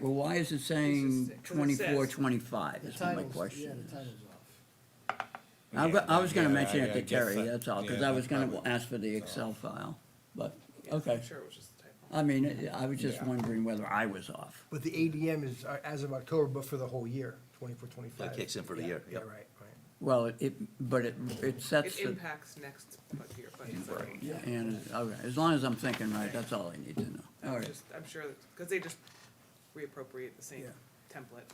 Well, why is it saying Because it twenty-four, says- twenty-five, The is what my title's, yeah, question the is. title's off. I, Yeah, I was gonna yeah, mention I- it I to guess Terry, that- that's all, cause yeah, I was gonna probably. ask for the Excel file, but, okay. I'm sure it was just a typo. I mean, it- I was just Yeah. wondering whether I was off. But the ADM is uh, as of October, but for the whole year, twenty-four, twenty-five. That kicks in for the year, Yeah, yep. right, right. Well, it, but it, it sets It the, impacts next budget year, budget cycle. and, okay, as long as I'm thinking right, that's all I need to know. All I'm right, just, I'm sure, because they just reappropriate the same template.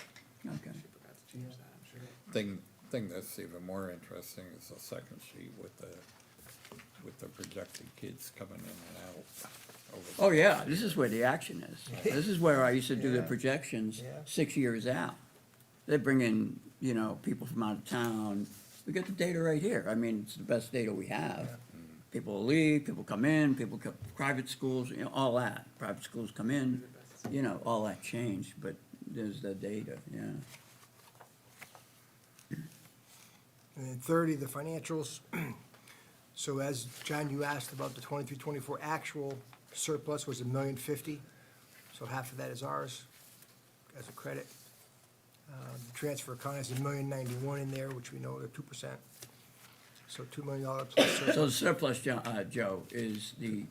okay. She forgot to change that, I'm sure. Thing, thing that's even more interesting is the second sheet with the, with the projected kids coming in and out. over the- Oh, yeah, this is where the action is. This is where I used to do the Yeah. projections Yeah. six years out. They bring in, you know, people from out of town. We get the data right here. I mean, it's the best data we have. Mm-hmm. People leave, people come in, people come, private schools, you know, all that. Private schools come in, you know, all that changed, but there's the data, yeah. And then thirty, the financials. So as, John, you asked about the twenty-three, twenty-four actual surplus was a million fifty. So half of that is ours as a credit. Um, the Transfer account has a million ninety-one in there, which we know are two percent. So two million dollar plus surplus. So the surplus, Jo- uh, Joe, is the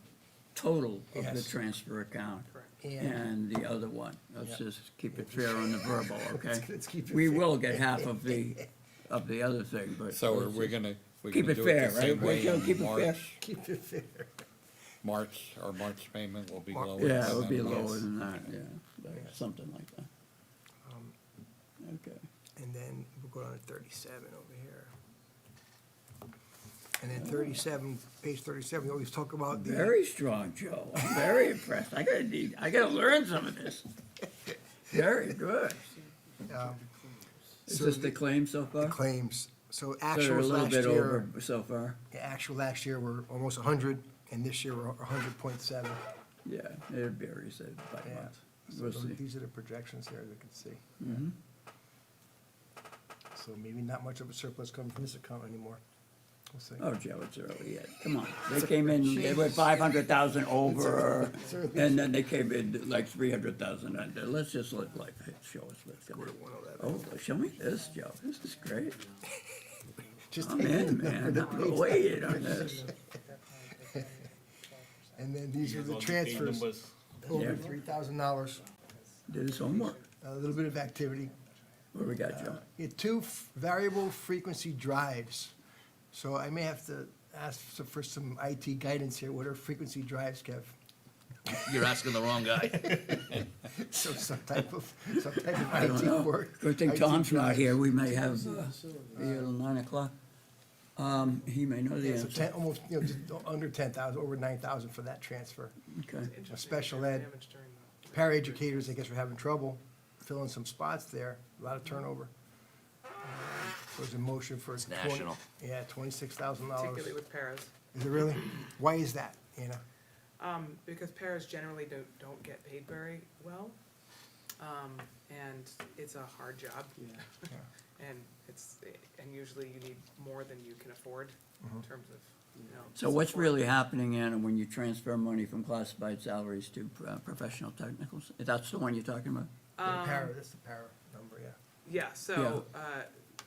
total of the Yes. transfer account. Correct. And the other one, let's just keep it fair on the verbal, okay? Let's keep it We fair. will get half of the, of the other thing, but. So are let's we just- gonna, we Keep gonna it do it fair, the right? same way Joe? Keep in it fair. March? Keep it fair. March, our March payment will be Mar- lower than. Yeah, it would be last- lower than that, yeah, like something like that. Um, Okay, And then we'll go down to thirty-seven over here. And then thirty-seven, page thirty-seven, we always talk about the. very strong, Joe, I'm very impressed, I gotta need, I gotta learn some of this. Very good. um, Is so this the claim so the far? Claims, so So they're a actuals little last bit over year, so far, the actual last year were almost hundred, and this year we're hundred point seven. yeah, it varies uh, by Yeah. month, we'll see. Mm-hmm. These are the projections here, as you can see. So maybe not much of a surplus coming from this account anymore. We'll see. Oh, Joe, it's early yet. Come on. They came in, they were five hundred thousand over, and then they came in like three hundred thousand under. Let's just let life show us what's going to on. 111. Oh, show me this, Joe. This is great. Just I'm take the in, number, oh, man. the I'm page- waiting on this. And then these are the transfers, Yeah. over three thousand dollars, Did his homework. a little bit of activity. What do we got, Joe? You had two f- variable frequency drives. So I may have to ask so- for some IT guidance here. What are frequency drives, Kev? You're asking the wrong guy. So some type of, some type of I don't IT know. work. Good thing IT Tom's not drives. here. We may have, uh, be here till nine o'clock. Um, he may know the Yeah, so answer. ten, almost, you know, just under ten thousand, over nine thousand for that transfer. Okay. Interesting, special there's ed. damage during the- Paraeducators, I guess, are having trouble filling some spots there, a lot of turnover. Um, There's a motion for. It's national. Yeah, twenty-six thousand dollars. Particularly with paras, Is it really? Why is that, Anna? um, because paras generally don't, don't get paid very well. Um, and it's a hard job. Yeah. And it's, and usually you need more than you can afford Uh-huh. in terms of, you know. So what's support. really happening, Anna, when you transfer money from classified salaries to uh, professional technicals? That's the one you're talking about? Um, The para, that's the para number, yeah. Yeah, so, uh,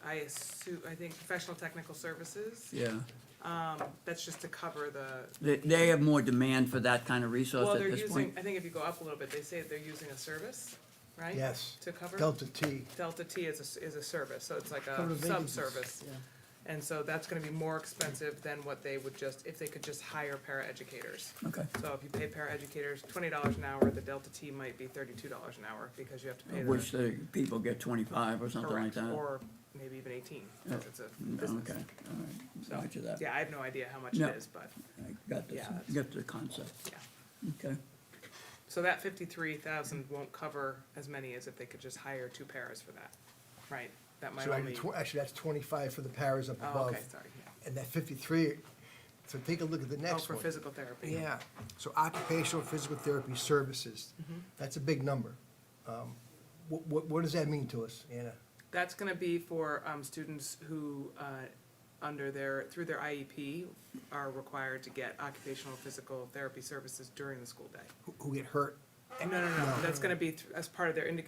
I assume, I think professional technical services, Yeah. um, that's just to cover the, They, they have more demand for that kind of well, resource they're at this using, point? I think if you go up a little bit, they say they're using a service, right? Yes. To cover? Delta T. Delta T is a, s- is a service, so it's like Cover a the vacancies, sub-service. And so that's gonna be more expensive than what they would just, if they could just hire paraeducators. Okay, So if you pay paraeducators twenty dollars an hour, the Delta T might be thirty-two dollars an hour, because you have to pay Of the. which the people get twenty-five or something like Correct, that? or maybe even eighteen, because it's a Mm, business. Okay, all right, So, Roger that. Yeah, I have no idea how much No. it is, but, I got this, yeah, that's- got the concept, yeah. okay. So that fifty-three thousand won't cover as many as if they could just hire two paras for that, right? That might So I only, did tw- actually, that's twenty-five for the paras up oh, above, okay, sorry, yeah. and that fifty-three, so take a look at the Oh, next for one. physical therapy. Yeah, so occupational physical therapy services, Mm-hmm. that's a big number. Um, What, what, what does that mean to us, Anna? That's gonna be for, um, students who, uh, under their, through their E IEP are required to get occupational physical therapy services during the school day. Who- Who get hurt And no, no, no, that's gonna be th- as part of their indic-